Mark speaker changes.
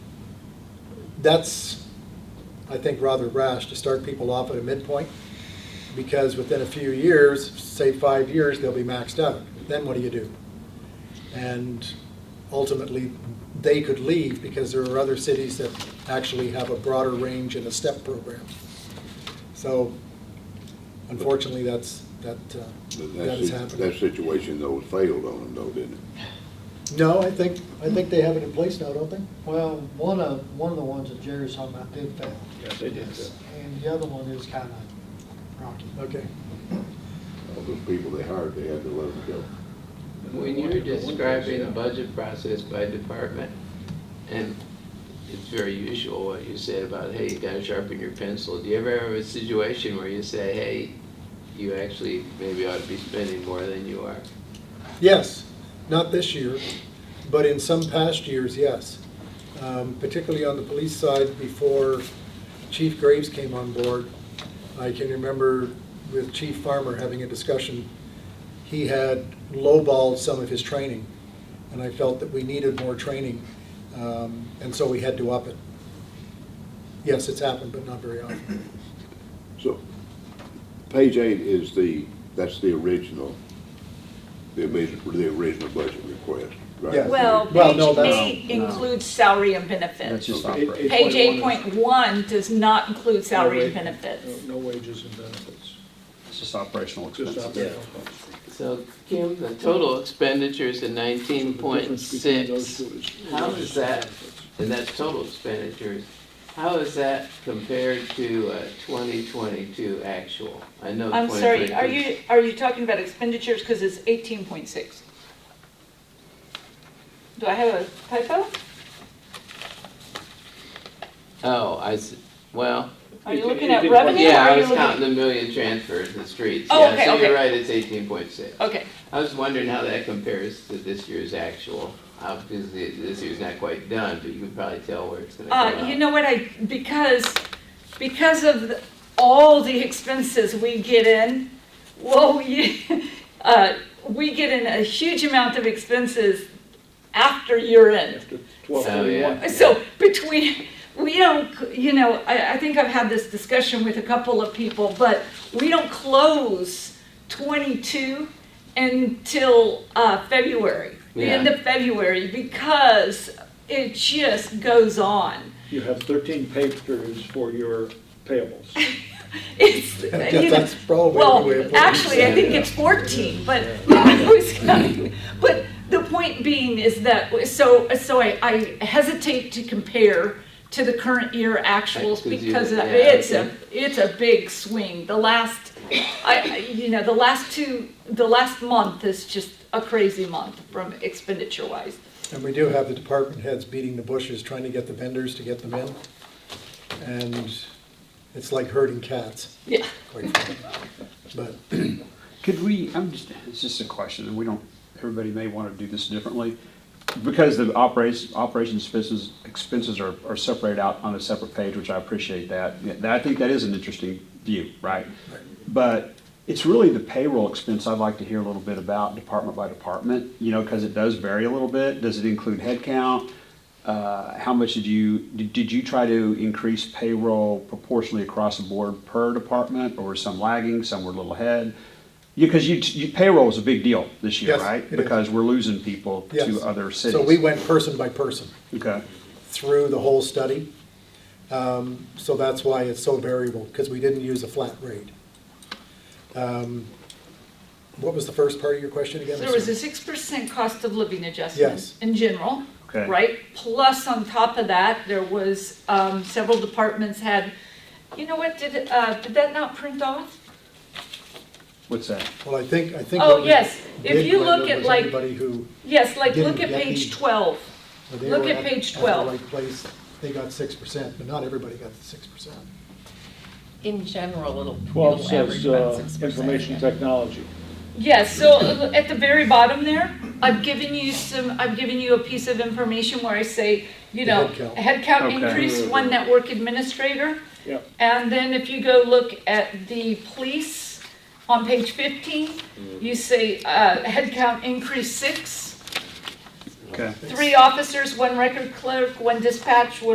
Speaker 1: that's, I think, rather rash to start people off at a midpoint, because within a few years, say five years, they'll be maxed out. Then what do you do? And ultimately, they could leave, because there are other cities that actually have a broader range and a step program. So unfortunately, that's, that, uh,
Speaker 2: But
Speaker 1: that is
Speaker 2: That, si-
Speaker 1: happening.
Speaker 2: that situation though failed on them though, didn't it?
Speaker 1: No, I think, I think they have it in place now, don't they?
Speaker 3: Well, one of, one of the ones that Jerry's talking about did fail.
Speaker 4: Yeah, they did fail.
Speaker 3: And the other one is kind of rocky.
Speaker 1: Okay.
Speaker 2: All those people they hired, they had to let them go.
Speaker 5: When you're describing the budget process by department, and it's very usual what you said about, hey, you gotta sharpen your pencil, do you ever have a situation where you say, hey, you actually maybe ought to be spending more than you are?
Speaker 1: Yes, not this year, but in some past years, yes. Um, Particularly on the police side, before Chief Graves came on board, I can remember with Chief Farmer having a discussion. He had lowballed some of his training, and I felt that we needed more training, um, and so we had to up it. Yes, it's happened, but not very often.
Speaker 2: So, page eight is the, that's the original, the original, the original budget request,
Speaker 1: Yeah.
Speaker 2: right?
Speaker 6: Well,
Speaker 1: Well, no,
Speaker 6: page
Speaker 1: that's-
Speaker 6: eight
Speaker 4: No, no.
Speaker 6: includes salary and
Speaker 4: That's
Speaker 6: benefits.
Speaker 4: just
Speaker 2: Okay.
Speaker 4: operating.
Speaker 6: Page eight point one does not include salary and benefits.
Speaker 7: No wages and benefits,
Speaker 4: It's just operational
Speaker 7: just
Speaker 4: expenses.
Speaker 7: operational costs.
Speaker 5: So, Kim, the total expenditures in nineteen point six, How is that? and that's total expenditures, how is that compared to uh, twenty twenty-two actual? I know
Speaker 6: I'm sorry, are
Speaker 5: 2022
Speaker 6: you, are you talking about expenditures, because it's eighteen point six? Do I have a typo?
Speaker 5: Oh, I, s- well,
Speaker 6: Are you
Speaker 7: It-
Speaker 6: looking
Speaker 7: it
Speaker 6: at
Speaker 7: didn't work.
Speaker 6: revenue? or
Speaker 5: Yeah,
Speaker 6: are
Speaker 5: I
Speaker 6: you
Speaker 5: was
Speaker 6: looking-
Speaker 5: counting the million transfers in the streets.
Speaker 6: Oh, okay,
Speaker 5: Yeah, so
Speaker 6: okay.
Speaker 5: you're right, it's eighteen point six.
Speaker 6: Okay,
Speaker 5: I was wondering how that compares to this year's actual. Obviously, this year's not quite done, but you can probably tell where it's gonna go
Speaker 6: uh,
Speaker 5: out.
Speaker 6: you know what, I, because, because of the- all the expenses we get in, whoa, you, uh, we get in a huge amount of expenses after year end.
Speaker 7: After twelve
Speaker 5: Oh,
Speaker 7: thirty-one.
Speaker 5: yeah.
Speaker 6: So between, we don't, you know, I, I think I've had this discussion with a couple of people, but we don't close twenty-two until, uh, February, the end
Speaker 5: Yeah.
Speaker 6: of February, because it just goes on.
Speaker 7: You have thirteen pay periods for your payables.
Speaker 6: It's, you know,
Speaker 1: That's probably the way. it
Speaker 6: well,
Speaker 1: works.
Speaker 6: actually, I think
Speaker 5: Yeah.
Speaker 6: it's fourteen, but, I was gonna- but the point being is that, so, so I, I hesitate to compare to the current year actuals
Speaker 5: Right, 'cause you-
Speaker 6: because
Speaker 5: yeah,
Speaker 6: it's a,
Speaker 5: okay.
Speaker 6: it's a big swing. The last, I, I- you know, the last two, the last month is just a crazy month from expenditure wise.
Speaker 1: And we do have the department heads beating the bushes, trying to get the vendors to get them in. And it's like herding cats,
Speaker 6: Yeah.
Speaker 1: quite frankly. But
Speaker 4: Could we, I'm just, it's just a question, and we don't, everybody may want to do this differently. Because the operations, operations expenses, expenses are, are separated out on a separate page, which I appreciate that. Yeah, that- I think that is an interesting view, right? But it's really the payroll expense I'd like to hear a little bit about, department by department, you know, because it does vary a little bit. Does it include headcount? Uh, How much did you, did did you try to increase payroll proportionally across the board per department? Or were some lagging, some were a little ahead? Because you, you- payroll is a big deal this year,
Speaker 1: Yes,
Speaker 4: right?
Speaker 1: it is.
Speaker 4: Because we're losing people
Speaker 1: yes.
Speaker 4: to other cities.
Speaker 1: So we went person by person
Speaker 4: Okay,
Speaker 1: through the whole study. Um, So that's why it's so variable, because we didn't use a flat rate. Um, What was the first part of your question again?
Speaker 6: There was a six percent cost of living
Speaker 1: Yes.
Speaker 6: adjustment in general.
Speaker 4: Okay.
Speaker 6: Right, plus on top of that, there was, um, several departments had, you know what, did, uh, did that not print off?
Speaker 4: what's that?
Speaker 1: Well, I think, I think.
Speaker 6: Oh,
Speaker 1: what we
Speaker 6: yes. If
Speaker 1: did,
Speaker 6: you look
Speaker 1: Glenda,
Speaker 6: at,
Speaker 1: was
Speaker 6: like-
Speaker 1: Anybody who.
Speaker 6: Yes, like, look
Speaker 1: Didn't
Speaker 6: at
Speaker 1: get
Speaker 6: page
Speaker 1: the-
Speaker 6: twelve.
Speaker 1: Well, they
Speaker 6: Look
Speaker 1: were
Speaker 6: at
Speaker 1: at-
Speaker 6: page
Speaker 1: at the
Speaker 6: 12.
Speaker 1: right place. They got six percent, but not everybody got the six percent.
Speaker 8: in general, it'll,
Speaker 7: Twelve
Speaker 8: it'll average
Speaker 7: says,
Speaker 8: about
Speaker 7: uh,
Speaker 8: six percent.
Speaker 7: information technology.
Speaker 6: Yes, so uh, at the very bottom there, I've given you some, I've given you a piece of information where I say, you
Speaker 1: The
Speaker 6: know,
Speaker 1: headcount.
Speaker 6: headcount
Speaker 4: Okay.
Speaker 6: increase, one network administrator.
Speaker 7: Yep.
Speaker 6: And then if you go look at the police on page fifteen, you say, uh, headcount increase six,
Speaker 4: Okay.
Speaker 6: three officers, one record clerk, one dispatch, one